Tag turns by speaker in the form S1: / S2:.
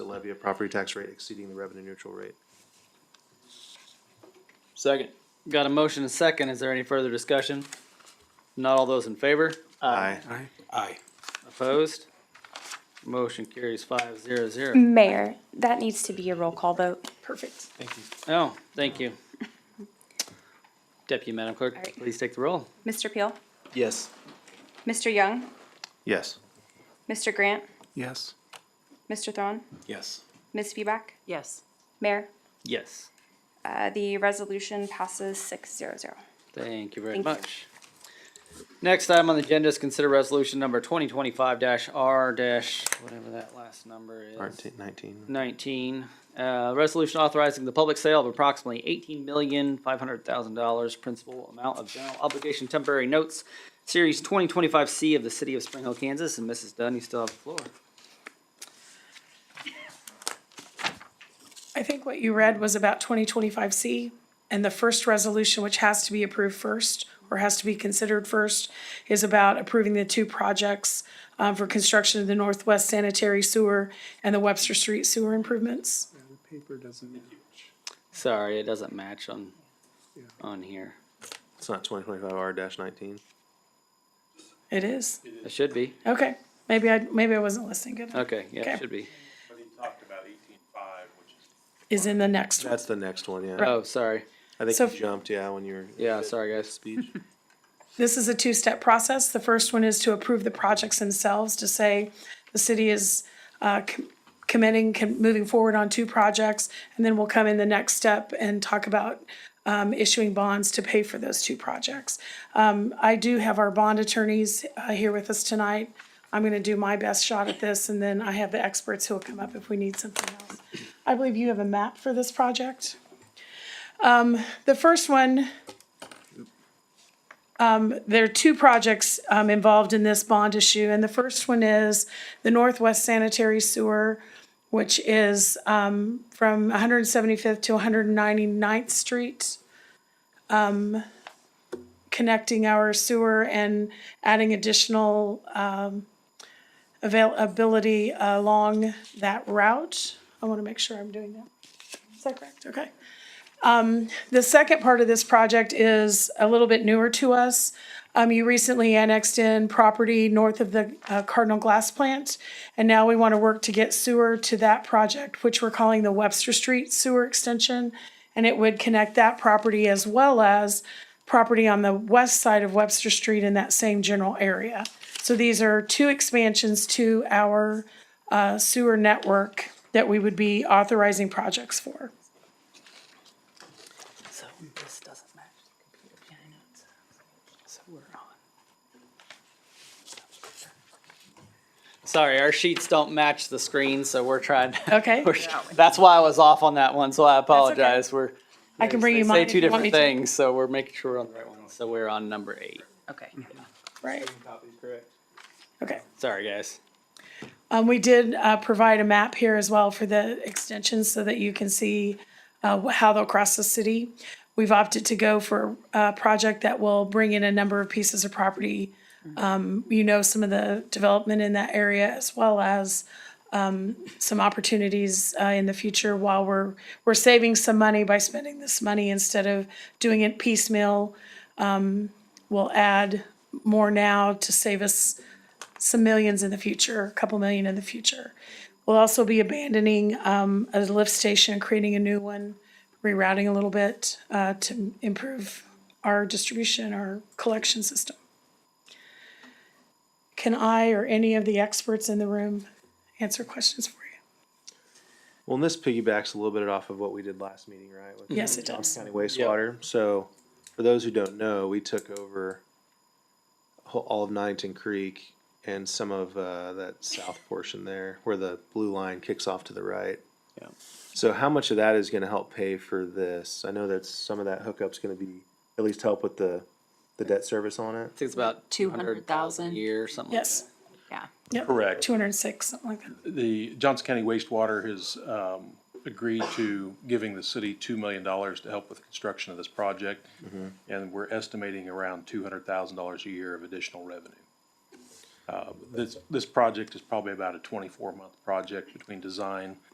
S1: levy a property tax rate exceeding the revenue neutral rate.
S2: Second.
S3: Got a motion and second. Is there any further discussion? Not all those in favor?
S2: Aye.
S4: Aye.
S3: Opposed? Motion carries five zero
S5: Mm.
S3: zero.
S5: Mayor, that needs to be a roll call vote.
S4: Perfect. Thank you.
S3: Oh, thank you. Deputy Madam
S5: All
S3: Clerk,
S5: right.
S3: please take the roll.
S5: Mr. Peel?
S2: Yes.
S5: Mr. Young?
S1: Yes.
S5: Mr. Grant?
S1: Yes.
S5: Mr. Thron?
S4: Yes.
S5: Ms. Feback?
S6: yes,
S5: Mayor?
S3: Yes.
S5: Uh, The resolution passes six zero zero.
S3: Thank you very
S5: Thank you.
S3: much. Next item on the agenda is consider resolution number twenty twenty-five R dash, whatever that last number is.
S1: Nineteen, nineteen.
S3: Nineteen, uh, resolution authorizing the public sale of approximately eighteen million, five hundred thousand dollars principal amount of general obligation temporary notes, series twenty twenty-five C of the city of Spring Hill, Kansas, and Mrs. Dunn, you still have the floor.
S7: I think what you read was about twenty twenty-five C, and the first resolution, which has to be approved first, or has to be considered first, is about approving the two projects um, for construction of the Northwest Sanitary Sewer and the Webster Street Sewer improvements.
S4: Paper doesn't match.
S3: Sorry, it doesn't match on, on here.
S1: It's not twenty twenty-five R dash nineteen.
S7: It is,
S3: It should be.
S7: okay, maybe I, maybe I wasn't listening good enough.
S3: Okay, yeah,
S7: Okay.
S3: it should be.
S7: Is in the next one.
S1: That's the next one, yeah.
S3: Oh, sorry.
S1: I think
S7: So-
S1: you jumped, yeah, when you were.
S3: Yeah, sorry, guys.
S1: Speech.
S7: This is a two-step process. The first one is to approve the projects themselves, to say the city is uh, com- committing, com- moving forward on two projects, and then we'll come in the next step and talk about um, issuing bonds to pay for those two projects. Um, I do have our bond attorneys uh, here with us tonight. I'm going to do my best shot at this, and then I have the experts who will come up if we need something else. I believe you have a map for this project. Um, The first one there are two projects um, involved in this bond issue, and the first one is the Northwest Sanitary Sewer, which is um, from 175th to 199th Street, um, connecting our sewer and adding additional um, availability along that route. I want to make sure I'm doing that. Is that correct? Okay. Um, The second part of this project is a little bit newer to us. Um, you recently annexed in property north of the uh, Cardinal Glass Plant, and now we want to work to get sewer to that project, which we're calling the Webster Street Sewer Extension. And it would connect that property as well as property on the west side of Webster Street in that same general area. So these are two expansions to our uh, sewer network that we would be authorizing projects for.
S6: so this doesn't match the computer, yeah, I know, it's, so we're on.
S3: Sorry, our sheets don't match the screen, so we're trying.
S7: Okay?
S3: we're- That's why I was off on that one, so I apologize.
S7: okay.
S3: We're.
S7: I can bring
S3: they
S7: you
S3: Say
S7: mine
S3: two
S7: if you want me
S3: different
S7: to.
S3: things, so we're making sure we're on the right one. So we're on number eight.
S6: Okay,
S7: Right, okay.
S3: Sorry, guys.
S7: Um, we did, uh, provide a map here as well for the extensions so that you can see, uh, wh- how they'll cross the city. We've opted to go for uh, a project that will bring in a number of pieces of property. Um, you know, some of the development in that area as well as, um, some opportunities, uh, in the future while we're, we're saving some money by spending this money instead of doing it piecemeal. Um, we'll add more now to save us, some millions in the future, a couple million in the future. We'll also be abandoning um, a lift station, creating a new one, rerouting a little bit uh, to improve our distribution, our collection system. Can I or any of the experts in the room answer questions for you?
S1: Well, and this piggybacks a little bit off of what we did last meeting, right? with
S7: Yes, it
S1: Johnson
S7: does.
S1: County wastewater. So for those who don't know, we took over ho- all of Nottington Creek and some of uh, that south portion there where the blue line kicks off to the right.
S3: Yeah.
S1: So how much of that is going to help pay for this? I know that some of that hookup's going to be, at least help with the, the debt service on it.
S3: I think it's about two hundred thousand a
S6: 200,000.
S3: year, something like
S7: Yes,
S3: that.
S6: yeah.
S4: Correct.
S7: two hundred and six, something like that.
S4: The Johnson County Wastewater has um, agreed to giving the city $2 million to help with construction of this project. And we're estimating around $200,000 a year of additional revenue. Uh, This, this project is probably about a 24-month project between design,